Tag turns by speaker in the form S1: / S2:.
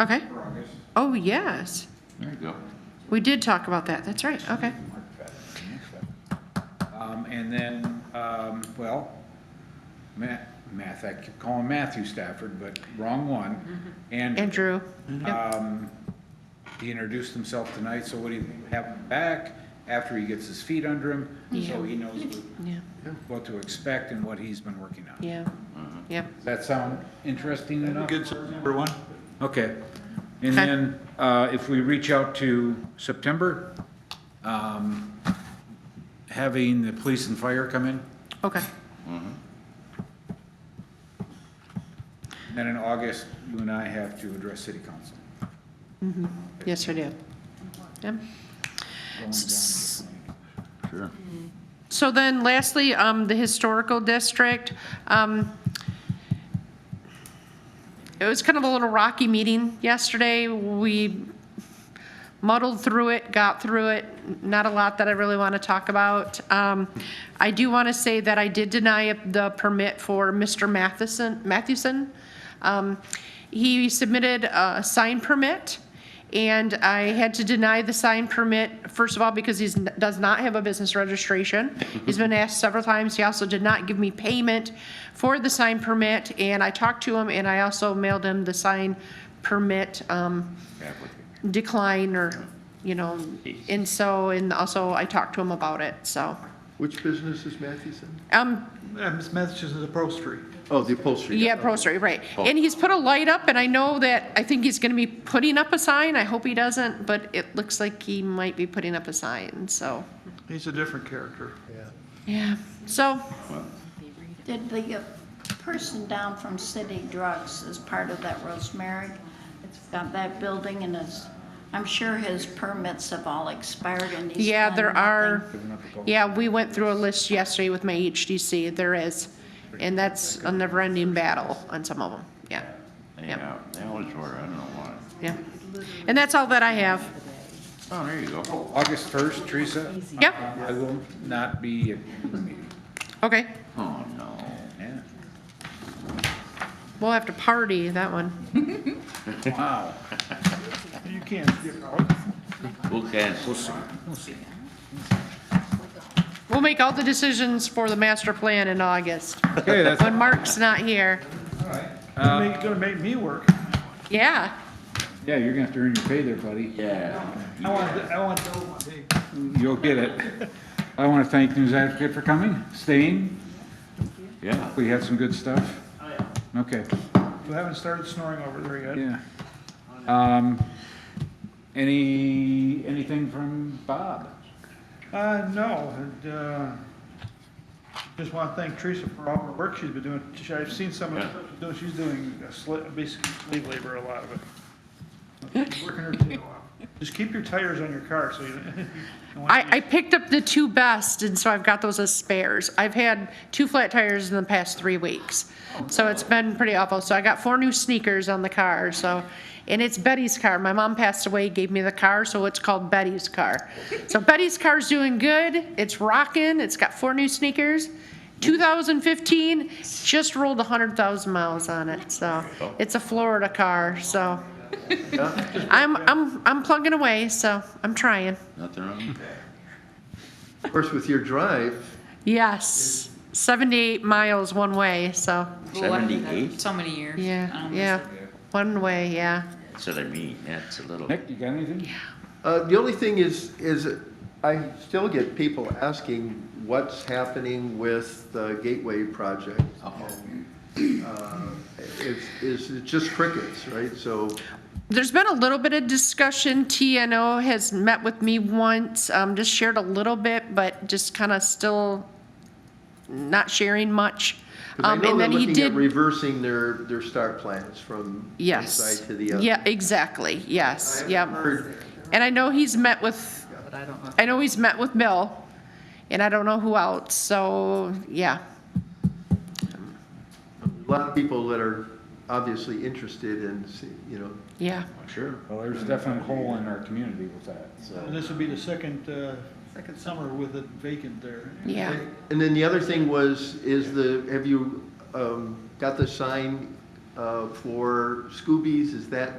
S1: Okay.
S2: for August.
S1: Oh, yes.
S3: There you go.
S1: We did talk about that. That's right. Okay.
S2: Um, and then, um, well, Matt, Math, I keep calling Matthew Stafford, but wrong
S1: Mm-hmm.
S2: one. And,
S1: Andrew.
S2: um, he introduced himself tonight, so what do you have him back after he gets his feet under him? So he knows
S1: Yeah,
S2: what- what to expect and what he's been working on.
S1: yeah, yeah.
S2: Does that sound interesting enough?
S4: Good, so number one?
S2: Okay. And
S1: Okay.
S2: then, uh, if we reach out to September, um, having the police and fire come in,
S1: Okay.
S2: then in August, you and I have to address city council.
S1: Yes, I do. Yeah.
S2: Going down to the plan.
S3: Sure.
S1: So then lastly, um, the historical district, um, it was kind of a little rocky meeting yesterday. We muddled through it, got through it, not a lot that I really want to talk about. Um, I do want to say that I did deny the permit for Mr. Matheson, Mathewson. Um, He submitted a sign permit, and I had to deny the sign permit, first of all, because he does not have a business registration. He's been asked several times. He also did not give me payment for the sign permit, and I talked to him, and I also mailed him the sign permit, um, decline or, you know, and so, and also I talked to him about it, so.
S5: Which business is Mathewson?
S1: Um,
S4: Ms. Matheson's upholstery.
S5: Oh, the upholstery.
S1: yeah, Prostrate, right. And he's put a light up and I know that, I think he's gonna be putting up a sign. I hope he doesn't, but it looks like he might be putting up a sign, so.
S4: He's a different character.
S1: Yeah, so,
S6: Did the uh, person down from City Drugs as part of that Rosemary, it's got that building and is, I'm sure his permits have all expired and he's
S1: yeah,
S6: done
S1: there are,
S6: nothing.
S2: Giving up the goal.
S1: yeah, we went through a list yesterday with my HDC, there is. And that's a never-ending battle on some of them, yeah,
S3: Yeah, they always were. I don't know why.
S1: yeah. And that's all that I have.
S3: Oh, there you go.
S2: August 1st, Teresa,
S1: Yep,
S2: I will not be at the meeting.
S1: okay.
S3: Oh, no.
S2: Yeah.
S1: We'll have to party that one.
S2: Wow.
S4: You can't,
S3: We'll cancel.
S1: We'll make all the decisions for the master plan in August,
S2: Okay, that's, Uh,
S1: when Mark's not here.
S4: you're gonna make me work.
S1: Yeah,
S2: yeah, you're gonna have to earn your pay there, buddy.
S3: Yeah.
S4: I want, I want to know, hey,
S2: You'll get it. I wanna thank News Advocate for coming, staying.
S3: Yeah.
S2: We had some good stuff.
S4: Oh,
S2: Okay,
S4: you haven't started snoring over there yet.
S2: yeah. Um, any, anything from Bob?
S4: Uh, no, and, uh, just want to thank Teresa for all her work she's been doing. She- I've seen some of the stuff she's doing. she's doing, uh, sla- basically slave labor, a lot of it. She's Working her tail off. Just keep your tires on your car, so you. you don't want
S1: I, I picked up the two best, and so I've got those as spares. I've had two flat tires in the past three weeks, so it's been pretty awful. So I got four new sneakers on the car, so, and it's Betty's car. My mom passed away, gave me the car, so it's called Betty's car. So Betty's car's doing good, it's rocking, it's got four new sneakers. 2015, just rolled 100,000 miles on it, so, it's a Florida car, so. I'm, I'm, I'm plugging away, so I'm trying.
S3: Nothing wrong.
S5: Of course, with your drive,
S1: Yes, 78 miles one way, so,
S3: Seventy-eight?
S7: So many years. I
S1: yeah,
S7: don't
S1: yeah, one way, yeah.
S3: That's what I mean. That's a little.
S2: Nick, you got anything?
S5: Uh, The only thing is, is I still get people asking what's happening with the Gateway project. Um, Uh, It's, it's it's just crickets, right? So,
S1: There's been a little bit of discussion, TNO has met with me once, um, just shared a little bit, but just kind of still not sharing much.
S5: 'cause I
S1: Um,
S5: know
S1: and
S5: they're
S1: then he
S5: looking at
S1: did.
S5: reversing their, their start plans from one
S1: Yes.
S5: side to the other.
S1: Yeah, exactly, yes, yeah.
S5: Heard-
S1: And I know he's met with, I know he's met with Bill, and I don't know who else, so, yeah.
S5: A lot of people that are obviously interested in, see- you know,
S1: Yeah,
S2: Sure. Well, there's definitely a hole in our community with that,
S4: And
S2: so.
S4: this will be the second, uh, second summer with it vacant there.
S1: yeah.
S5: And then the other thing was, is the, have you um, got the sign uh, for Scoobies? Is that